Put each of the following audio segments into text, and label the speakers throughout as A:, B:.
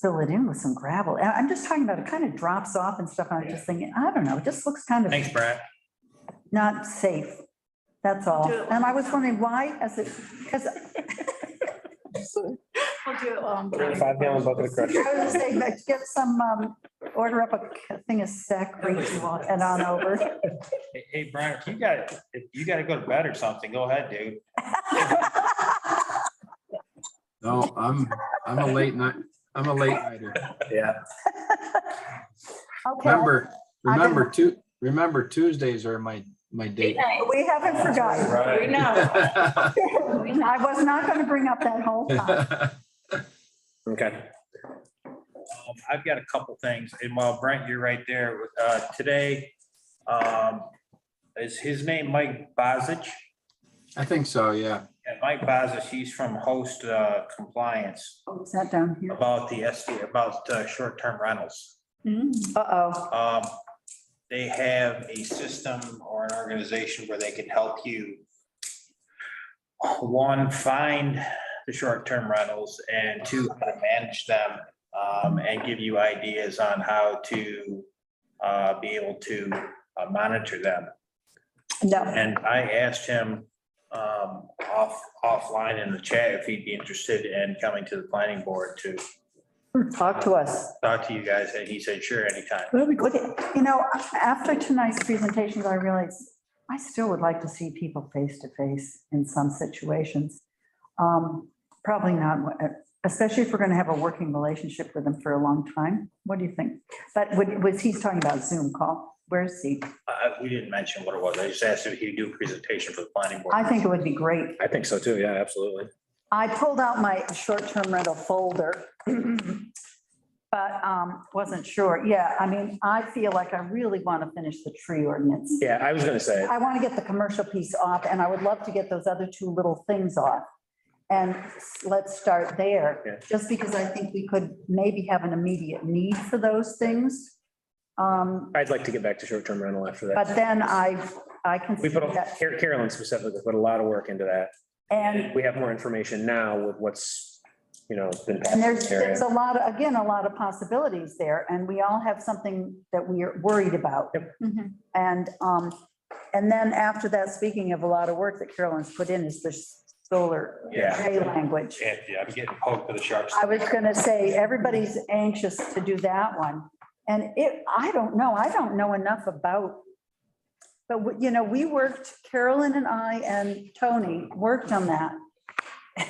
A: fill it in with some gravel. I- I'm just talking about it kind of drops off and stuff. and I'm just thinking, I don't know, it just looks kind
B: Thanks,
A: of
B: Brad.
A: not safe. That's all.
C: Do it.
A: And I was wondering why, as it, because
C: We'll do it while I'm
D: Bring a
C: driving.
D: Five gallon bucket of
A: I
D: crushed.
A: was gonna say, but get some, um, order up a thing of sack grease and on over.
B: Hey, hey, Brian, if you got, if you gotta go to bed or something, go ahead, dude.
E: No, I'm, I'm a late night, I'm a late nighter.
D: Yeah.
A: Okay,
E: Remember, remember two, remember Tuesdays are my, my date.
A: we haven't forgotten.
C: We know.
A: I was not gonna bring up that whole time.
D: Okay.
B: Um, I've got a couple things, and while Brent, you're right there, uh, today, um, is his name Mike Bozich?
E: I think so, yeah.
B: Yeah, Mike Bozich, he's from Host uh, Compliance
A: Oh, is that down here?
B: about the SD, about uh, short-term rentals.
C: Mm.
A: Uh-oh.
B: Um, they have a system or an organization where they can help you. One, find the short-term rentals and two, how to manage them, um, and give you ideas on how to, uh, be able to uh, monitor them.
A: No,
B: And I asked him, um, off, offline in the chat if he'd be interested in coming to the planning board to
A: talk to us.
B: talk to you guys, and he said, sure, anytime.
A: Would it- You know, after tonight's presentations, I realized I still would like to see people face to face in some situations. Um, Probably not, especially if we're going to have a working relationship with them for a long time. What do you think? But would- was he's talking about Zoom call? Where's he?
B: Uh, we didn't mention what it was. I just asked if he'd do a presentation for the planning board.
A: I think it would be great.
D: I think so too. Yeah, absolutely.
A: I pulled out my short-term rental folder, but um, wasn't sure. Yeah, I mean, I feel like I really want to finish the tree ordinance.
D: Yeah, I was gonna say,
A: I want to get the commercial piece off, and I would love to get those other two little things off. And s- let's start
D: Yeah.
A: there, just because I think we could maybe have an immediate need for those things. Um,
D: I'd like to get back to short-term rental after that.
A: But then I, I can.
D: We put, a-
A: see that-
D: Car- Carolyn specifically put a lot of work into that.
A: And
D: We have more information now with what's, you know, been passed.
A: And
D: in
A: there's,
D: this area.
A: there's a lot, of- again, a lot of possibilities there, and we all have something that we are worried about.
C: Mhm.
A: And, um, and then after that, speaking of a lot of work that Carolyn's put in is the solar
B: Yeah.
A: array language.
B: Yeah, yeah, I'm getting poked with a sharp.
A: I
B: stick.
A: was gonna say, everybody's anxious to do that one. And it, I don't know, I don't know enough about. But, we- you know, we worked, Carolyn and I and Tony worked on that.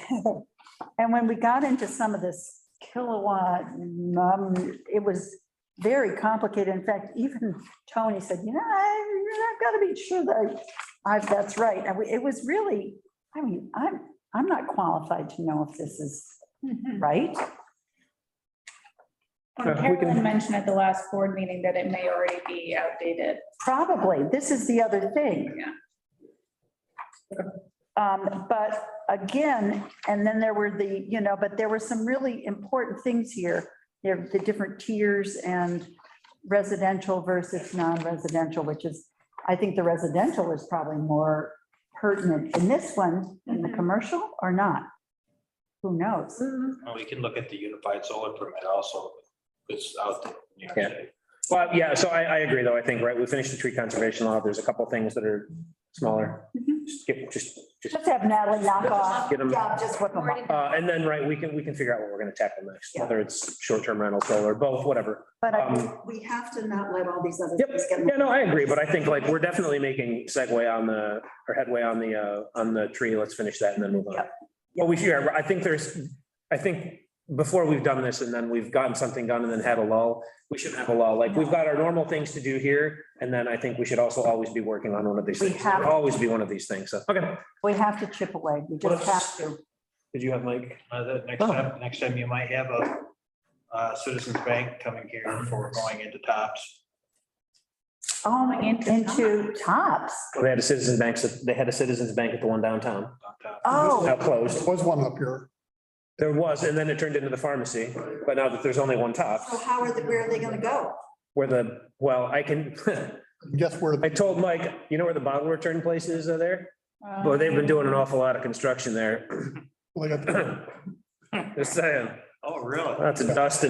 A: And when we got into some of this kilowatt, um, it was very complicated. In fact, even Tony said, you know, I- I've got to be sure that I've, that's right. And we- it was really, I mean, I'm, I'm not qualified to know if this is
C: Mhm.
A: right?
D: Uh, we
C: Well,
D: can-
C: Carolyn mentioned at the last board meeting that it may already be outdated.
A: Probably. This is the other thing.
C: Yeah.
A: Um, but again, and then there were the, you know, but there were some really important things here. There, the different tiers and residential versus non-residential, which is, I think the residential is probably more pertinent in this one than the
D: Mm-hmm.
C: Mhm.
A: commercial or not. Who knows?
B: Well, We can look at the unified solar permit also. It's out there. you know,
D: Yeah.
B: today.
D: Well, yeah, so I, I agree though. I think, right, we finished the tree conservation law. There's a couple things that are smaller.
A: Mm-hmm.
C: Mhm.
D: Just get, just, just,
A: Just have Natalie knock off.
D: Get 'em.
A: Yeah, just whip 'em up.
D: uh, and then, right, we can, we can figure out what we're gonna tackle next,
A: Yeah.
D: whether it's short-term rental, solar, both, whatever.
A: But I
D: Um,
A: think we have to not let all these other
D: Yep.
A: things get. in the
D: Yeah, no, I agree, but I think like we're definitely making segue on the, or headway on the, uh, on the tree. Let's finish that and then move on.
A: Yep.
D: Well, we should, I think there's, I think before we've done this and then we've gotten something done and then had a lull, we shouldn't have a lull. Like we've got our normal things to do here. And then I think we should also always be working on one of these
A: We
D: things.
A: have-
D: Always be one of these things. So, okay.
A: We have to chip away. We
D: Well,
A: just have to.
D: Did you have Mike?
B: Uh, the next
D: Oh.
B: time, next time you might have a, uh, Citizens Bank coming here before going into tops.
A: Oh,
C: my-
A: Into tops.
D: Well, They had a citizens bank, they had a citizens bank at the one downtown. Now
A: Oh,
D: closed.
F: There was one up here.
D: There was, and then it turned into the pharmacy. But now that there's only one top,
A: so how are they, where are they gonna go?
D: where the, well, I can,
F: Guess where?
D: I told Mike, you know where the bottle return place is uh, there? Well, they've been doing an awful lot of construction there.
F: Well, they got the
D: Just saying,
B: Oh, really?
D: lots of dust